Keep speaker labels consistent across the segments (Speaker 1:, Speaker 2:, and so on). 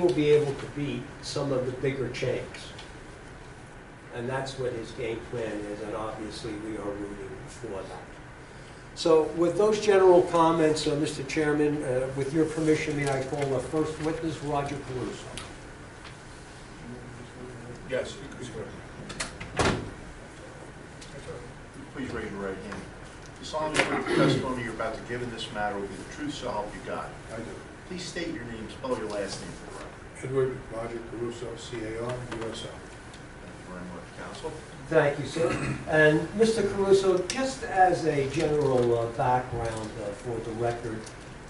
Speaker 1: will be able to beat some of the bigger chains. And that's what his game plan is, and obviously, we are rooting for that. So with those general comments, uh, Mr. Chairman, uh, with your permission, may I call our first witness, Roger Caruso?
Speaker 2: Yes, you can swear. Please raise your right hand. You solemnly swear the testimony you're about to give in this matter will be the truth, so help you God.
Speaker 3: I do.
Speaker 2: Please state your name, spell your last name for the record.
Speaker 3: Edward Roger Caruso, C-A-R-U-S-O.
Speaker 2: Thank you very much, counsel.
Speaker 1: Thank you, sir. And Mr. Caruso, just as a general uh, background uh, for the record,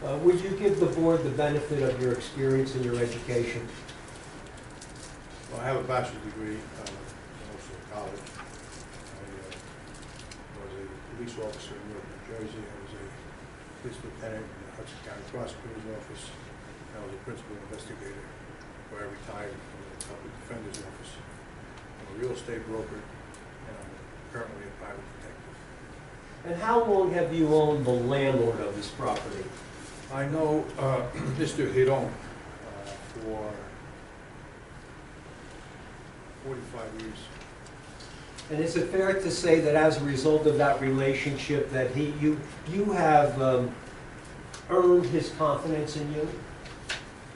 Speaker 1: uh, would you give the board the benefit of your experience and your education?
Speaker 3: Well, I have a bachelor's degree, uh, from Oxford college. I uh, was a police officer in Newark, New Jersey. I was a police lieutenant in the Hudson County Prosecutor's Office. I was a principal investigator, where I retired from the public defender's office. I'm a real estate broker, and I'm currently a private detective.
Speaker 1: And how long have you owned the landlord of this property?
Speaker 3: I know uh, Mr. Hiron uh, for 45 years.
Speaker 1: And is it fair to say that as a result of that relationship, that he, you, you have um, earned his confidence in you?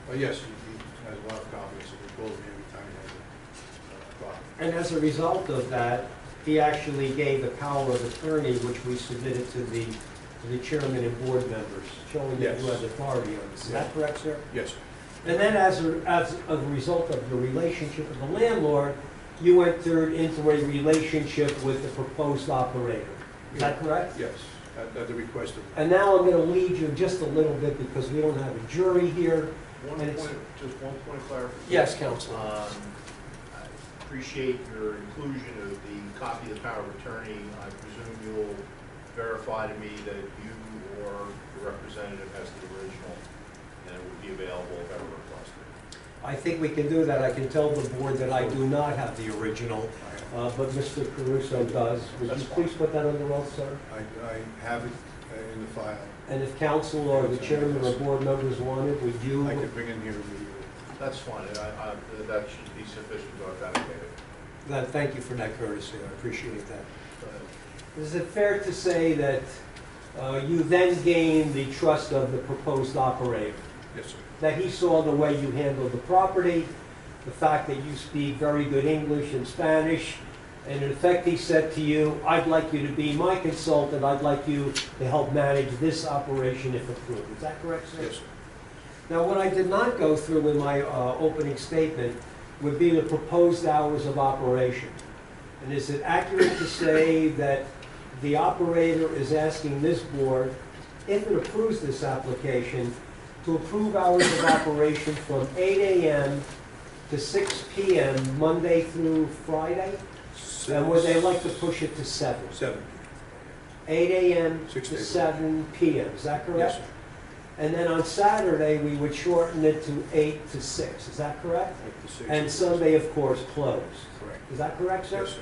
Speaker 3: But Uh, yes, he he has a lot of confidence, and he calls me every time he has a uh, problem.
Speaker 1: And as a result of that, he actually gave a power of attorney, which we submitted to the, to the chairman and board members, showing that you
Speaker 3: Yes.
Speaker 1: have authority on this. Is that correct, sir?
Speaker 3: Yes,
Speaker 1: And then as a, as a result of your relationship with the landlord, you entered into a relationship with the proposed operator. Is that correct?
Speaker 3: yes, at at the request of,
Speaker 1: And now I'm going to lead you just a little bit because we don't have a jury here.
Speaker 2: One
Speaker 1: And it's-
Speaker 2: point, just one point of clarification.
Speaker 1: Counselor.
Speaker 2: Um, I Appreciate your inclusion of the copy of the power of attorney. I presume you'll verify to me that you or your representative has the original, and it would be available if ever requested.
Speaker 1: I think we can do that. I can tell the board that I do not have the original, uh, but Mr. Caruso does. Would
Speaker 2: That's
Speaker 1: you
Speaker 2: fine.
Speaker 1: please put that under oath, sir?
Speaker 3: I I have it uh, in the file.
Speaker 1: And if council or the chairman or board members want it, would you?
Speaker 3: I can bring it here immediately.
Speaker 2: That's fine, and I, I, that should be sufficient to authenticate it.
Speaker 1: That- Thank you for that courtesy. I appreciate that.
Speaker 2: Go ahead.
Speaker 1: Is it fair to say that uh, you then gained the trust of the proposed operator?
Speaker 3: Yes, sir.
Speaker 1: that he saw the way you handled the property, the fact that you speak very good English and Spanish, and in effect, he said to you, I'd like you to be my consultant, I'd like you to help manage this operation if approved. Is that correct, sir?
Speaker 3: Yes, sir.
Speaker 1: Now, what I did not go through in my uh, opening statement would be the proposed hours of operation. And is it accurate to say that the operator is asking this board, if it approves this application, to approve hours of operation from 8 AM to 6 PM, Monday through Friday? And would they like to push it to 7?
Speaker 3: Seven.
Speaker 1: 8 AM
Speaker 3: Six
Speaker 1: to
Speaker 3: days.
Speaker 1: 7 PM, is that correct?
Speaker 3: Yes, sir.
Speaker 1: And then on Saturday, we would shorten it to eight to six, is that correct?
Speaker 3: Like the six.
Speaker 1: And Sunday, of course, closed.
Speaker 3: Correct.
Speaker 1: Is that correct, sir?
Speaker 3: Yes, sir.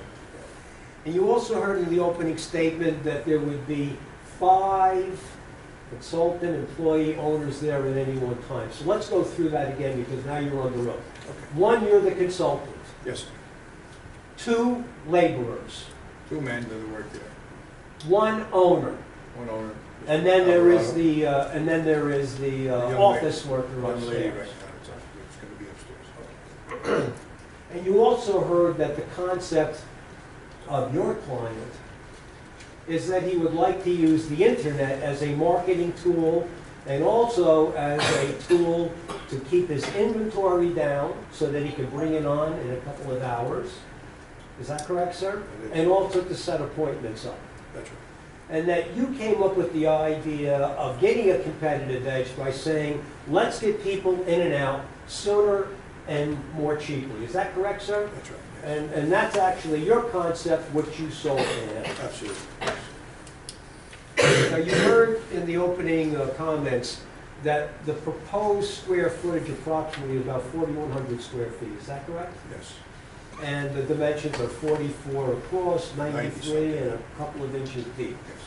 Speaker 1: And you also heard in the opening statement that there would be five consultant employee owners there at any one time. So let's go through that again because now you're on the road.
Speaker 3: Okay.
Speaker 1: One, you're the consultant.
Speaker 3: Yes, sir.
Speaker 1: Two, laborers.
Speaker 3: two men that work there,
Speaker 1: One owner.
Speaker 3: one owner.
Speaker 1: And then there is
Speaker 3: Alvarado.
Speaker 1: the, uh, and then there is the
Speaker 3: The young
Speaker 1: uh,
Speaker 3: lady.
Speaker 1: office worker
Speaker 3: One lady right now,
Speaker 1: upstairs.
Speaker 3: it's up- it's gonna be upstairs.
Speaker 1: And you also heard that the concept of your client is that he would like to use the internet as a marketing tool and also as a tool to keep his inventory down so that he can bring it on in a couple of hours. Is that correct, sir?
Speaker 3: It is.
Speaker 1: And also to set appointments up.
Speaker 3: That's right.
Speaker 1: And that you came up with the idea of getting a competitive edge by saying, let's get people in and out sooner and more cheaply. Is that correct, sir?
Speaker 3: That's right. yes.
Speaker 1: And, and that's actually your concept, what you sold to him.
Speaker 3: Absolutely.
Speaker 1: Now, you heard in the opening uh, comments that the proposed square footage approximately is about 4,100 square feet, is that correct?
Speaker 3: Yes.
Speaker 1: And the dimensions are 44 across, 93, and a couple of inches deep.
Speaker 3: Yes.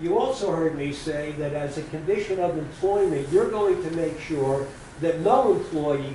Speaker 1: You also heard me say that as a condition of employment, you're going to make sure that no employee